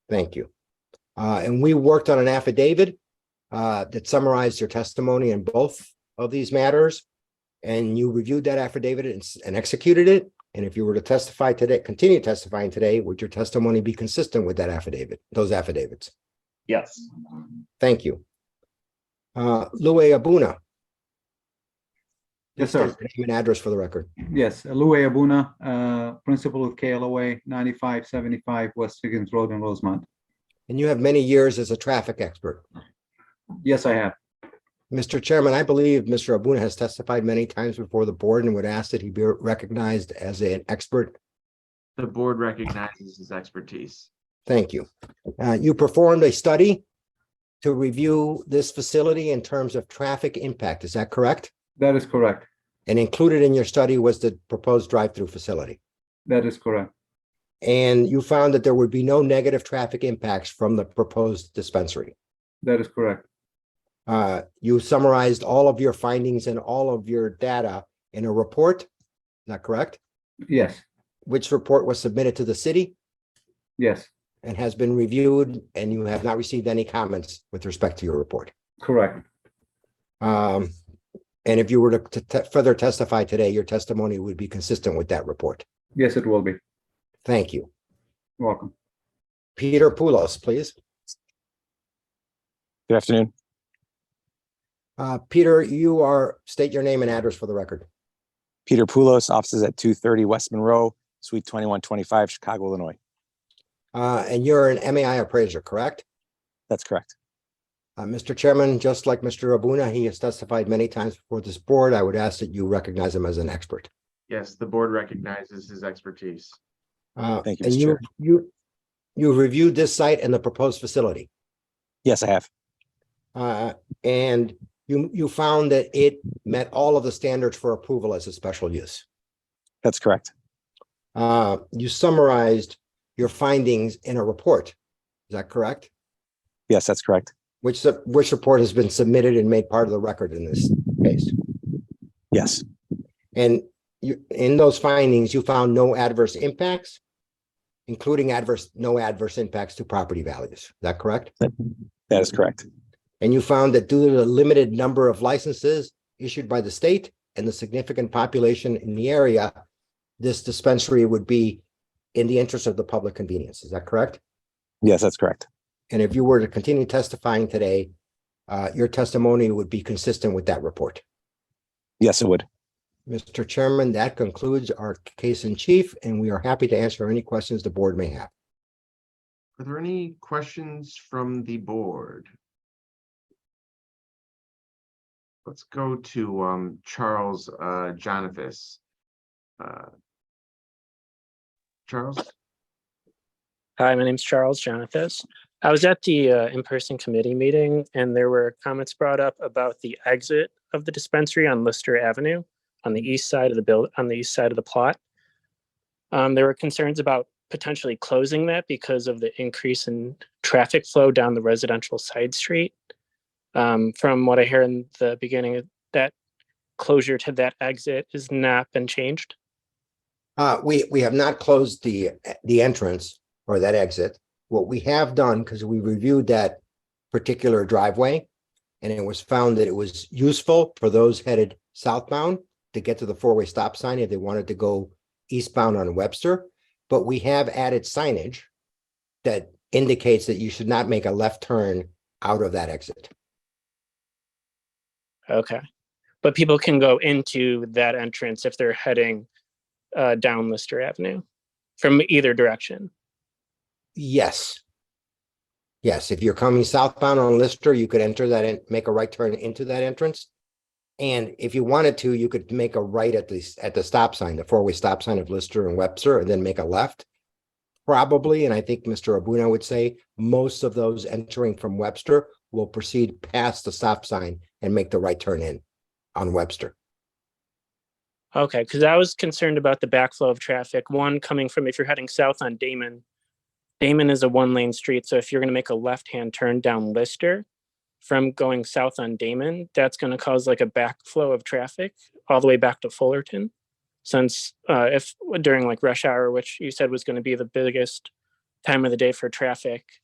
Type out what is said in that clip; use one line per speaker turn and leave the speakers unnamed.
Thank you. Uh, and we worked on an affidavit uh, that summarized your testimony in both of these matters. And you reviewed that affidavit and, s- and executed it. And if you were to testify today, continue testifying today, would your testimony be consistent with that affidavit, those affidavits?
Yes,
Thank you. Uh, Louis Abuna,
Yes,
name
sir.
and address for the record.
Yes, Louis Abuna, uh, principal of KLOA, 9575 West Higgins Road in Rosemont.
And you have many years as a traffic expert.
Yes, I have.
Mr. Chairman, I believe Mr. Abuna has testified many times before the board and would ask that he be recognized as an expert.
The board recognizes his expertise.
Thank you. Uh, You performed a study to review this facility in terms of traffic impact. Is that correct?
That is correct.
And included in your study was the proposed drive-through facility.
That is correct.
And you found that there would be no negative traffic impacts from the proposed dispensary.
That is correct.
Uh, You summarized all of your findings and all of your data in a report. Is that correct?
Yes,
Which report was submitted to the city
yes,
and has been reviewed, and you have not received any comments with respect to your report.
correct.
Um, and if you were to t- t- further testify today, your testimony would be consistent with that report.
Yes, it will be.
Thank you.
Welcome.
Peter Poulos, please.
Good afternoon.
Uh, Peter, you are, state your name and address for the record.
Peter Poulos, offices at 230 West Monroe, Suite 2125, Chicago, Illinois.
Uh, and you're an MAI appraiser, correct?
That's correct.
Uh, Mr. Chairman, just like Mr. Abuna, he has testified many times before this board. I would ask that you recognize him as an expert.
Yes, the board recognizes his expertise.
Uh,
Thank you,
and
Mr.
you,
Chair.
you, you reviewed this site and the proposed facility.
Yes, I have.
Uh, and you, you found that it met all of the standards for approval as a special use.
That's correct.
Uh, you summarized your findings in a report. Is that correct?
Yes, that's correct.
Which, su- which report has been submitted and made part of the record in this case?
Yes,
And you, in those findings, you found no adverse impacts, including adverse, no adverse impacts to property values. Is that correct?
that is correct.
And you found that due to the limited number of licenses issued by the state and the significant population in the area, this dispensary would be in the interest of the public convenience. Is that correct?
Yes, that's correct.
And if you were to continue testifying today, uh, your testimony would be consistent with that report.
Yes, it would.
Mr. Chairman, that concludes our case in chief, and we are happy to answer any questions the board may have.
Are there any questions from the board? Let's go to um Charles uh Jonathas. Uh, Charles,
Hi, my name's Charles Jonathas. I was at the uh, in-person committee meeting and there were comments brought up about the exit of the dispensary on Lister Avenue on the east side of the build, on the east side of the plot. Um, There were concerns about potentially closing that because of the increase in traffic flow down the residential side street. Um, From what I hear in the beginning, that closure to that exit has not been changed.
Uh, we, we have not closed the, the entrance or that exit. What we have done, because we reviewed that particular driveway, and it was found that it was useful for those headed southbound to get to the four-way stop sign if they wanted to go eastbound on Webster. But we have added signage that indicates that you should not make a left turn out of that exit.
Okay. But people can go into that entrance if they're heading uh, down Lister Avenue from either direction.
Yes. Yes, if you're coming southbound on Lister, you could enter that and make a right turn into that entrance. And if you wanted to, you could make a right at the, s- at the stop sign, the four-way stop sign of Lister and Webster, and then make a left. Probably, and I think Mr. Abuna would say, most of those entering from Webster will proceed past the stop sign and make the right turn in on Webster.
Okay. Because I was concerned about the backflow of traffic. One coming from if you're heading south on Damon, Damon is a one lane street. So if you're going to make a left hand turn down Lister from going south on Damon, that's going to cause like a backflow of traffic all the way back to Fullerton. Since uh, if during like rush hour, which you said was going to be the biggest time of the day for traffic,